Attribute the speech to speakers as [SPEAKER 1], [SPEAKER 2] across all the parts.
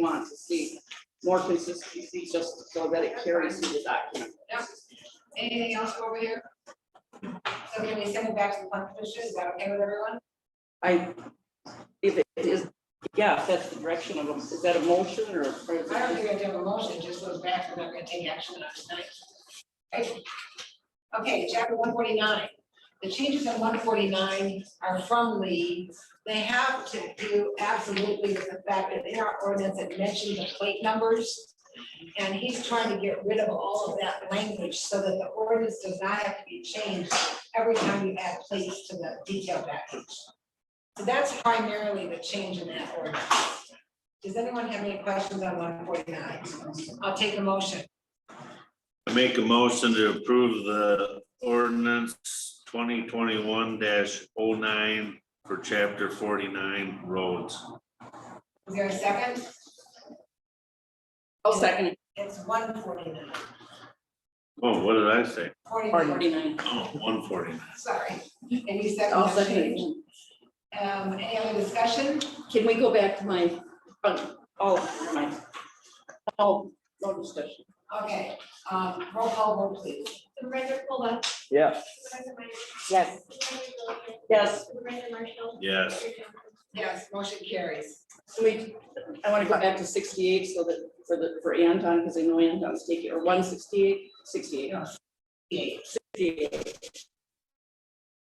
[SPEAKER 1] want to see more consistency, just so that it carries through the document.
[SPEAKER 2] Anything else over here? So can we send it back to the plan commission? Is that okay with everyone?
[SPEAKER 1] I, if it is, yeah, if that's the direction of, a- is that a motion or? or is
[SPEAKER 2] I don't
[SPEAKER 1] it-
[SPEAKER 2] think I do have a motion, it just goes back, we're not gonna take action on it tonight. Okay, chapter one forty-nine. The changes in one forty-nine are from Lee. They have to do absolutely with the fact that in our ordinance it mentions the plate numbers. And he's trying to get rid of all of that language so that the ordinance does not have to be changed every time you add plates to the detail package. So that's primarily the change in that ordinance. Does anyone have any questions on one forty-nine? I'll take a motion.
[SPEAKER 3] I Make a motion to approve the ordinance twenty twenty-one 9 for chapter forty-nine roads.
[SPEAKER 2] Is there a second?
[SPEAKER 1] I'll second it.
[SPEAKER 2] It's one forty-nine.
[SPEAKER 3] Oh, what did I say?
[SPEAKER 2] Forty-nine,
[SPEAKER 3] Oh, one forty-nine.
[SPEAKER 2] sorry. And you second
[SPEAKER 4] I'll
[SPEAKER 2] the
[SPEAKER 4] second
[SPEAKER 2] change.
[SPEAKER 4] it.
[SPEAKER 2] Um, any other discussion?
[SPEAKER 4] Can we go back to my,
[SPEAKER 1] Oh, oh, my. Oh, no discussion.
[SPEAKER 2] Okay, um, roll call vote please.
[SPEAKER 5] Supervisor Cola.
[SPEAKER 6] Yes.
[SPEAKER 5] Supervisor Myers.
[SPEAKER 4] yes,
[SPEAKER 5] Supervisor Williams.
[SPEAKER 1] Yes,
[SPEAKER 5] Supervisor Marshall.
[SPEAKER 3] Yes,
[SPEAKER 5] Mayor Johnson.
[SPEAKER 2] Yes, motion carries.
[SPEAKER 1] so we, I want to go back to sixty-eight so that, for the, for Anton, because I know Anton's taking, or 168, 68,
[SPEAKER 2] Yes. Yay.
[SPEAKER 1] 68.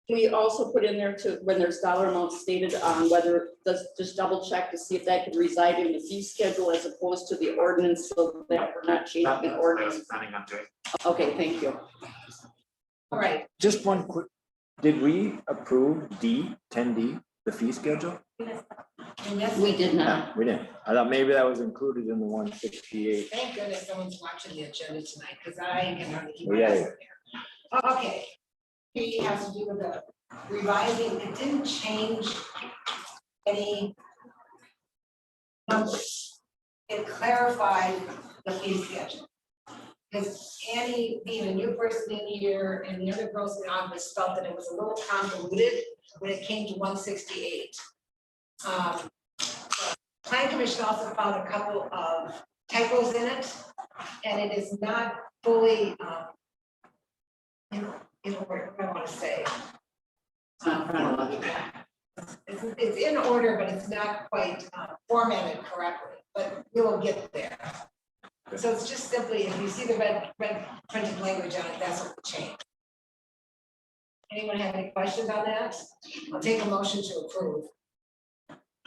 [SPEAKER 1] Can We also put in there to, when there's dollar amounts stated on whether, just, just double check to see if that could reside in the fee schedule as opposed to the ordinance, so that we're not changing the ordinance. Okay, thank you.
[SPEAKER 2] All right,
[SPEAKER 6] Just one quick, did we approve D, ten D, the fee schedule?
[SPEAKER 2] and yes,
[SPEAKER 4] we did not.
[SPEAKER 6] We didn't. I thought maybe that was included in the one sixty-eight.
[SPEAKER 2] thank goodness someone's watching the agenda tonight, because I can hardly keep
[SPEAKER 6] Oh,
[SPEAKER 2] my
[SPEAKER 6] yeah,
[SPEAKER 2] eyes
[SPEAKER 6] yeah.
[SPEAKER 2] on there. Okay. He has to do with the revising, it didn't change any numbers. It clarified the fee schedule. Because Annie, being a new person in here, and the other girls in the office felt that it was a little convoluted when it came to one sixty-eight. Um, Plan Commission also found a couple of typos in it, and it is not fully, um, you know, you know, what I want to say.
[SPEAKER 4] It's not chronological.
[SPEAKER 2] It's, it's in order, but it's not quite uh, formatted correctly, but we will get there. So it's just simply, if you see the red, red printed language on it, that's what we changed. Anyone have any questions on that? I'll take a motion to approve.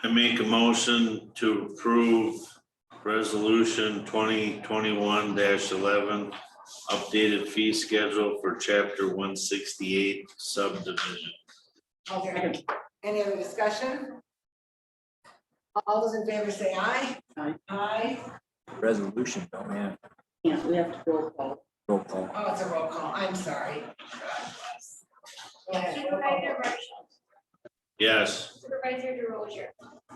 [SPEAKER 3] I make a motion to approve resolution twenty twenty-one eleven, updated fee schedule for chapter one sixty-eight subdivision.
[SPEAKER 2] Okay, any other discussion? All those in favor say aye.
[SPEAKER 1] Aye.
[SPEAKER 2] Aye.
[SPEAKER 6] Resolution, don't we have
[SPEAKER 1] Yeah, we have to roll call.
[SPEAKER 6] roll call?
[SPEAKER 2] Oh, it's a roll call, I'm sorry. Go ahead, roll call.
[SPEAKER 5] Supervisor Marshall.
[SPEAKER 3] Yes,
[SPEAKER 5] Supervisor DeRozier.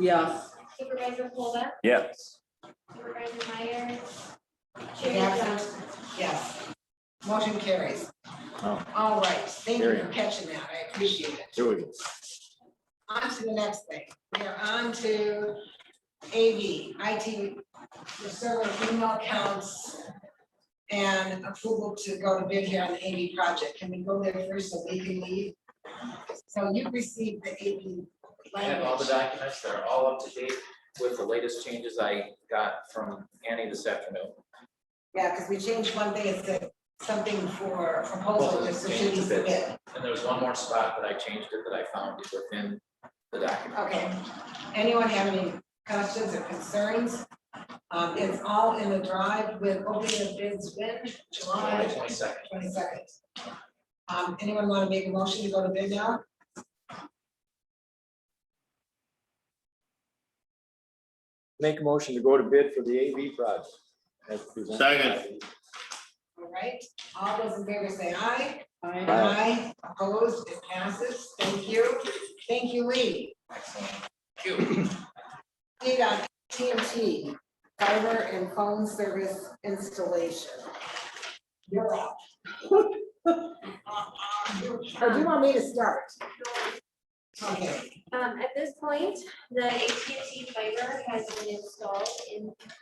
[SPEAKER 1] Yes,
[SPEAKER 5] Supervisor Cola.
[SPEAKER 6] Yes.
[SPEAKER 5] Supervisor Myers. Chair Johnson.
[SPEAKER 2] Absent? Yes. Motion carries.
[SPEAKER 6] Oh.
[SPEAKER 2] All right, thank you
[SPEAKER 6] There you
[SPEAKER 2] for
[SPEAKER 6] go.
[SPEAKER 2] catching that, I appreciate it.
[SPEAKER 6] Here we go.
[SPEAKER 2] On to the next thing, we are on to AV, IT, the server email accounts and approval to go to bid here on the AV project, can we go there first so we can leave? So you received the AV
[SPEAKER 7] I have all the
[SPEAKER 2] language,
[SPEAKER 7] documents, they're all up to date with the latest changes I got from Annie this afternoon.
[SPEAKER 2] yeah, because we changed one thing, it said something for proposal, just so she
[SPEAKER 7] Change
[SPEAKER 2] needs
[SPEAKER 7] the
[SPEAKER 2] to
[SPEAKER 7] bid.
[SPEAKER 2] bid.
[SPEAKER 7] And there's one more spot that I changed it that I found within the document.
[SPEAKER 2] Okay, anyone have any questions or concerns? Um, it's all in the drive with opening of bids when,
[SPEAKER 7] July
[SPEAKER 2] July
[SPEAKER 7] twenty-second.
[SPEAKER 2] twenty second. Um, anyone want to make a motion to go to bid now?
[SPEAKER 6] Make a motion to go to bid for the AV project. as presented.
[SPEAKER 3] Second.
[SPEAKER 2] All right, all those in favor say aye.
[SPEAKER 1] I,
[SPEAKER 2] Aye. Opposed, it passes, thank you, thank you, Lee.
[SPEAKER 7] Excellent.
[SPEAKER 2] We got TNT, fiber and phone service installation. You're up. Uh, um, Or do you want me to start? Okay.
[SPEAKER 5] Um, at this point, the AT&T fiber has been installed in